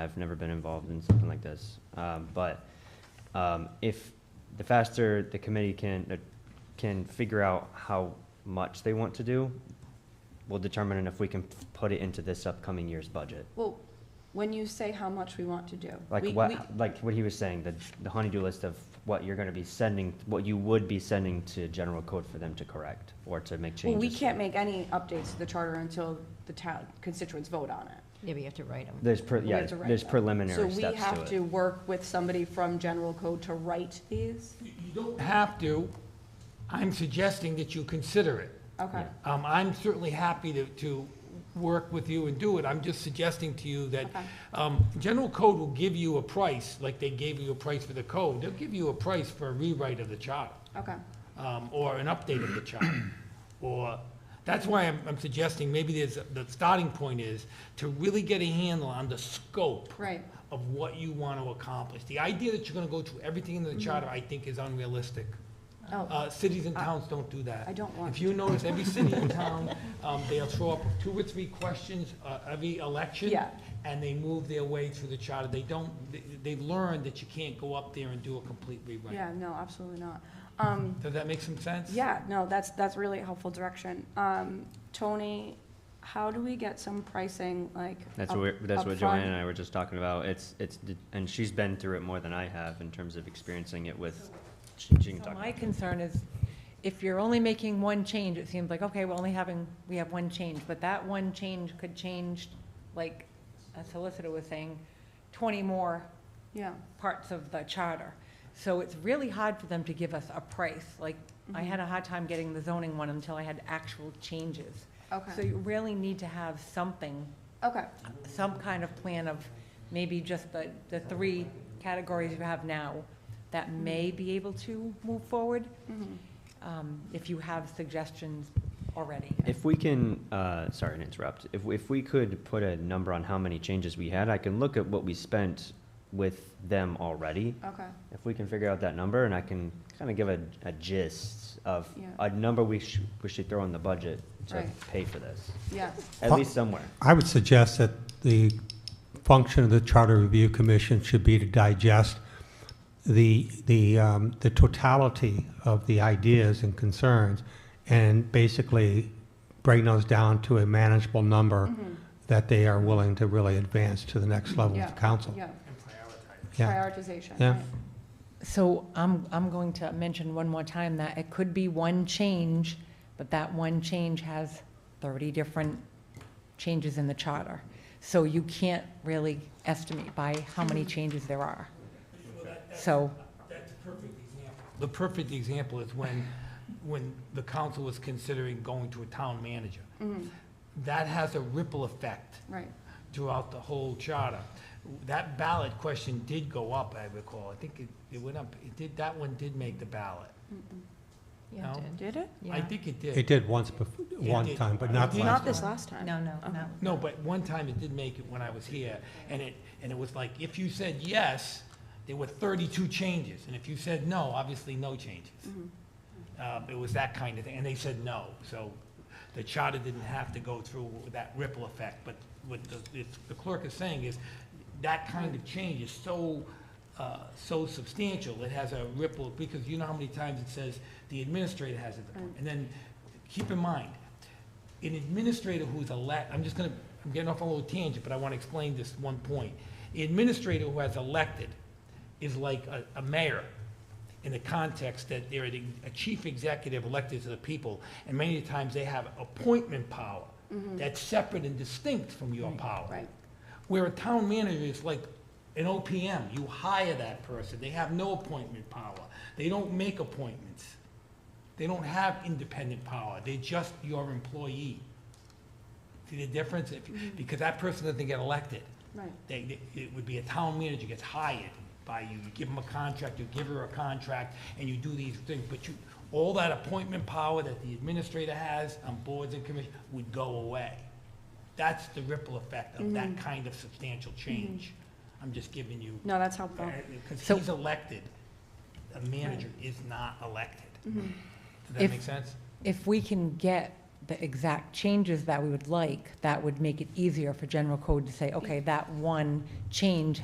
I've never been involved in something like this. Um, But um, if, the faster the committee can, uh, can figure out how much they want to do, will determine if we can put it into this upcoming year's budget. Well, when you say how much we want to do. we- Like we- what, like what he was saying, the, the honeydew list of what you're gonna be sending, what you would be sending to general code for them to correct or to make Well, changes. we can't make any updates to the charter until the town constituents vote on it. Yeah, but you have to write them. There's, pre- We yeah, have to write there's them. preliminary steps to So it. we have to work with somebody from general code to write these? You you don't have to. I'm suggesting that you consider it. Okay. Um, I'm certainly happy to, to work with you and do it. I'm just suggesting to you that, Okay. um, general code will give you a price, like they gave you a price for the code. They'll give you a price for a rewrite of the charter, Okay, um, or an update of the charter. Or, that's why I'm, I'm suggesting maybe there's, the starting point is to really get a handle on the scope right. of what you want to accomplish. The idea that you're going to go through everything in the charter, I think, is unrealistic. Oh, Uh, Cities and towns don't do that. I don't want If you notice, every city and town, um, they'll throw up two or three questions uh, every election. Yeah. And they move their way through the charter. They don't, they- they've learned that you can't go up there and do a complete rewrite. yeah, no, absolutely not. Um, Does that make some sense? yeah, no, that's, that's really helpful direction. Um, Tony, how do we get some pricing, like? That's up- what, we're- that's up what front? Joanne and I were just talking about. It's, it's, d- and she's been through it more than I have in terms of experiencing it with, she she can So talk. my concern is, if you're only making one change, it seems like, okay, we're only having, we have one change, but that one change could change, like a solicitor was saying, twenty more Yeah, parts of the charter. So it's really hard for them to give us a price, like, I had a hard time getting the zoning one until I had actual changes. So okay, you really need to have something Mm-hmm. okay, some kind of plan of maybe just the, the three categories you have now that may be able to move forward, mhm, um, if you have suggestions already. If we can, uh, sorry to interrupt, if, we- if we could put a number on how many changes we had, I can look at what we spent with them already. okay, If we can figure out that number and I can kind of give a, a gist of Yeah. a number we should, we should throw in the budget to Right. pay for this, yeah, at Huh. least somewhere. I would suggest that the function of the Charter Review Commission should be to digest the, the, um, the totality of the ideas and concerns and basically bring those down to a manageable number mhm, that they are willing to really advance to the next level Yeah. of council. yeah. And prioritize. Yeah. Prioritization, Yeah. right. So I'm, I'm going to mention one more time that it could be one change, but that one change has thirty different changes in the charter. So you can't really estimate by how many changes there are. So, That's a perfect example. The perfect example is when, when the council was considering going to a town manager. Mhm, That has a ripple effect. Right, throughout the whole charter. That ballot question did go up, I recall. I think it, it went up, it did, that one did make the ballot. Mm-hmm. Yeah, No. it did. did it? I Yeah. think it It did. did once bef- one did. time, but not It did. last Not time. this last time. No, no, Uh-huh. no. No, but one time it did make it when I was here, and it, and it was like, if you said yes, there were thirty-two changes, and if you said no, obviously no changes. Mm-hmm, Uh, it was that kind of thing, and they said no, so the charter didn't have to go through that ripple effect, but what the, it's- the clerk is saying is, that kind of change is so, uh, so substantial, it has a ripple, because you know how many times it says, the administrator has it, and then, keep in mind, an administrator who's elect, I'm just gonna, I'm getting off on a little tangent, but I wanna explain this one point. The administrator who has elected is like a, a mayor in the context that they're the- a chief executive elected to the people, and many times they have appointment power that's separate and distinct from your power. Mm-hmm. Right. Where a town manager is like an OPM, you hire that person, they have no appointment power, they don't make appointments. They don't have independent power, they're just your employee. See the difference? If- Because that person doesn't get elected. Right, They, they- it would be a town manager gets hired by you, you give him a contract, you give her a contract, and you do these things, but you, all that appointment power that the administrator has on boards and commissions would go away. That's the ripple effect of Mm-hmm. that kind of substantial change. I'm just giving you, uh, no, that's helpful. because Oh. So- he's elected, a manager is not elected. Does Mm-hmm. If- that make sense? if we can get the exact changes that we would like, that would make it easier for general code to say, okay, that one change